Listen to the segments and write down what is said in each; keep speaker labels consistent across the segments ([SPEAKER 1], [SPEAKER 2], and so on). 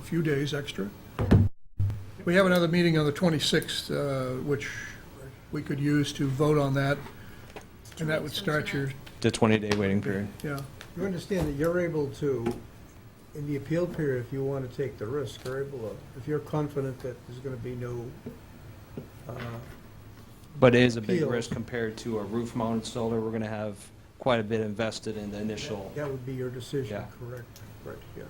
[SPEAKER 1] few days extra. We have another meeting on the 26th, uh, which we could use to vote on that, and that would start your,
[SPEAKER 2] The 20-day waiting period.
[SPEAKER 1] yeah.
[SPEAKER 3] You understand that you're able to, in the appeal period, if you want to take the risk, you're able to, if you're confident that there's going to be no, uh,
[SPEAKER 2] But it is a big
[SPEAKER 3] Appeals.
[SPEAKER 2] risk compared to a roof-mounted solar. We're going to have quite a bit invested in the initial.
[SPEAKER 3] uh, that would be your decision,
[SPEAKER 2] Yeah.
[SPEAKER 3] correct? Correct, yeah.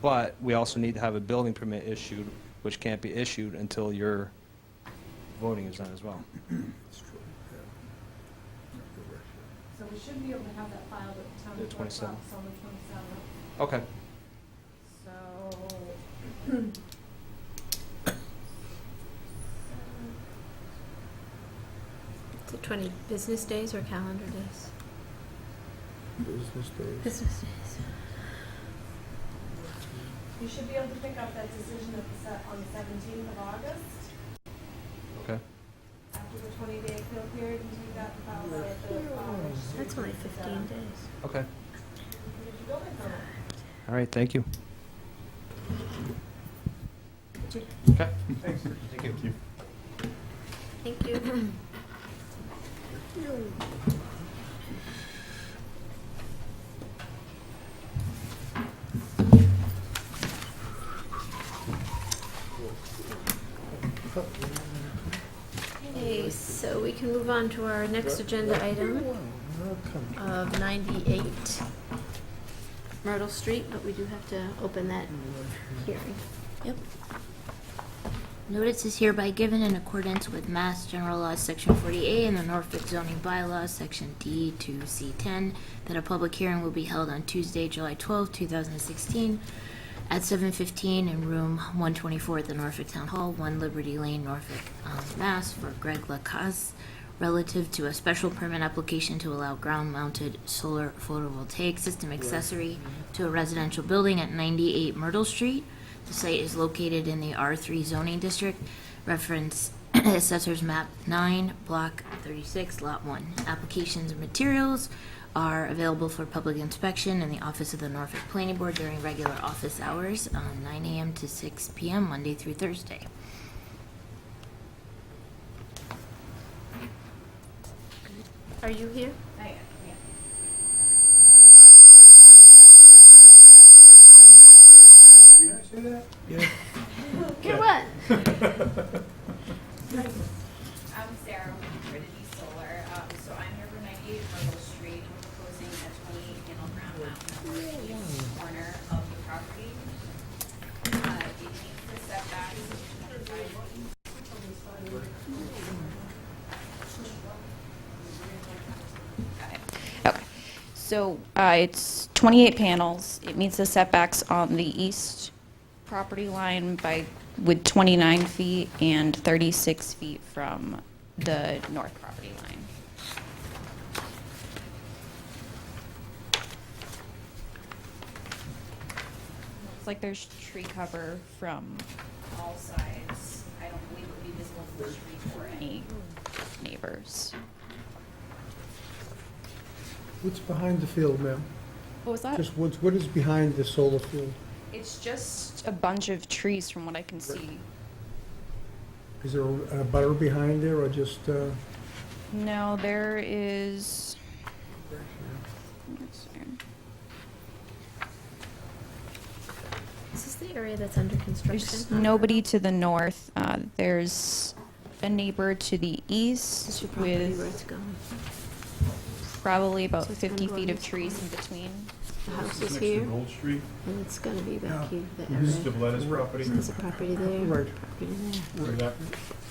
[SPEAKER 2] But we also need to have a building permit issued, which can't be issued until your voting is done as well.
[SPEAKER 3] It's true, yeah.
[SPEAKER 4] So we should be able to have that filed at the town
[SPEAKER 2] The
[SPEAKER 4] clerk's
[SPEAKER 2] 27th.
[SPEAKER 4] office on the twenty-seventh.
[SPEAKER 2] Okay.
[SPEAKER 4] So.
[SPEAKER 5] Is it 20 business days or calendar days?
[SPEAKER 3] Business days.
[SPEAKER 5] Business days.
[SPEAKER 4] You should be able to pick up that decision at the se- on the seventeenth of August,
[SPEAKER 2] Okay.
[SPEAKER 4] after the twenty-day appeal period, and take that and file that at the. uh, registry.
[SPEAKER 5] That's only 15 days.
[SPEAKER 4] Get
[SPEAKER 2] Okay.
[SPEAKER 4] your building permit.
[SPEAKER 2] All right. Thank you.
[SPEAKER 5] Thank you. Okay, so we can move on to our next agenda item of 98 Myrtle Street, but we do have to open that hearing.
[SPEAKER 6] Notice is hereby given in accordance with Mass General Law, Section 40A, and the Norfolk zoning bylaws, Section D to C10, that a public hearing will be held on Tuesday, July 12, 2016, at 7:15 in Room 124 at the Norfolk Town Hall, 1 Liberty Lane, Norfolk, um, Mass, for Greg Lacasse, relative to a special permit application to allow ground-mounted solar photovoltaic system accessory to a residential building at 98 Myrtle Street. The site is located in the R3 zoning district, reference Assessor's Map 9, Block 36, Lot 1. Applications and materials are available for public inspection in the office of the Norfolk Planning Board during regular office hours, um, 9 AM to 6 PM, Monday through Thursday.
[SPEAKER 5] Are you here?
[SPEAKER 4] I am, yeah.
[SPEAKER 3] You guys see that?
[SPEAKER 5] Good what?
[SPEAKER 7] I'm Sarah with Trinity Solar. Um, so I'm here for 98 Myrtle Street. I'm proposing a 28 panel ground mount on the east corner of the property. Uh, it meets the setbacks.
[SPEAKER 8] Okay, so uh, it's 28 panels. It meets the setbacks on the east property line by, with 29 feet and 36 feet from the north property line. Looks like there's tree cover from
[SPEAKER 7] All sides. I don't believe it would be visible from the street or any.
[SPEAKER 8] any neighbors.
[SPEAKER 3] What's behind the field, ma'am?
[SPEAKER 8] What was that?
[SPEAKER 3] Just what's, what is behind the solar field?
[SPEAKER 8] It's just a bunch of trees from what I can see.
[SPEAKER 3] Is there a butter behind there or just, uh,
[SPEAKER 8] No, there is. let's see.
[SPEAKER 5] Is this the area that's under construction?
[SPEAKER 8] There's nobody to the north. Uh, there's a neighbor to the
[SPEAKER 5] This
[SPEAKER 8] east
[SPEAKER 5] should probably be where
[SPEAKER 8] with
[SPEAKER 5] it's going.
[SPEAKER 8] probably about
[SPEAKER 5] So it's gonna
[SPEAKER 8] 50
[SPEAKER 5] go
[SPEAKER 8] feet
[SPEAKER 5] on
[SPEAKER 8] of
[SPEAKER 5] this
[SPEAKER 8] trees
[SPEAKER 5] corner.
[SPEAKER 8] in between.
[SPEAKER 5] The house is
[SPEAKER 9] Next
[SPEAKER 5] here,
[SPEAKER 9] to Gold Street,
[SPEAKER 5] and it's gonna be
[SPEAKER 1] Yeah.
[SPEAKER 5] back here, that
[SPEAKER 9] this is
[SPEAKER 5] area.
[SPEAKER 9] Debleta's property,
[SPEAKER 5] There's a property there,
[SPEAKER 3] right,
[SPEAKER 5] property there.
[SPEAKER 9] where that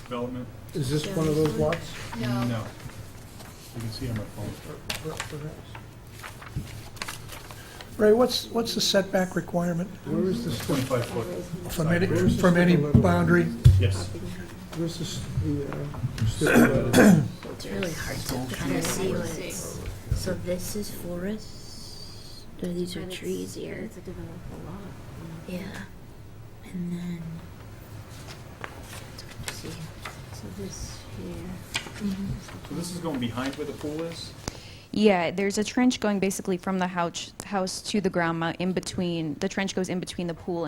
[SPEAKER 9] development,
[SPEAKER 3] is this one of those lots?
[SPEAKER 9] no. You can see on my phone.
[SPEAKER 3] Per- perhaps?
[SPEAKER 1] Ray, what's, what's the setback requirement
[SPEAKER 3] Where is this, one?
[SPEAKER 9] Twenty-five foot,
[SPEAKER 1] from any, from any boundary?
[SPEAKER 9] yes.
[SPEAKER 3] where's this, the, uh, strip of, uh,
[SPEAKER 6] It's really hard to kind of see what it's, so this is forest, or these are
[SPEAKER 5] And it's-
[SPEAKER 6] trees here.
[SPEAKER 5] It's a developable lot.
[SPEAKER 6] Yeah. And then. It's hard to see.
[SPEAKER 5] So this here.
[SPEAKER 9] So this is going behind where the pool is?
[SPEAKER 8] Yeah, there's uh, a trench going basically from the house, house to the ground mount in between. The trench goes in between the pool and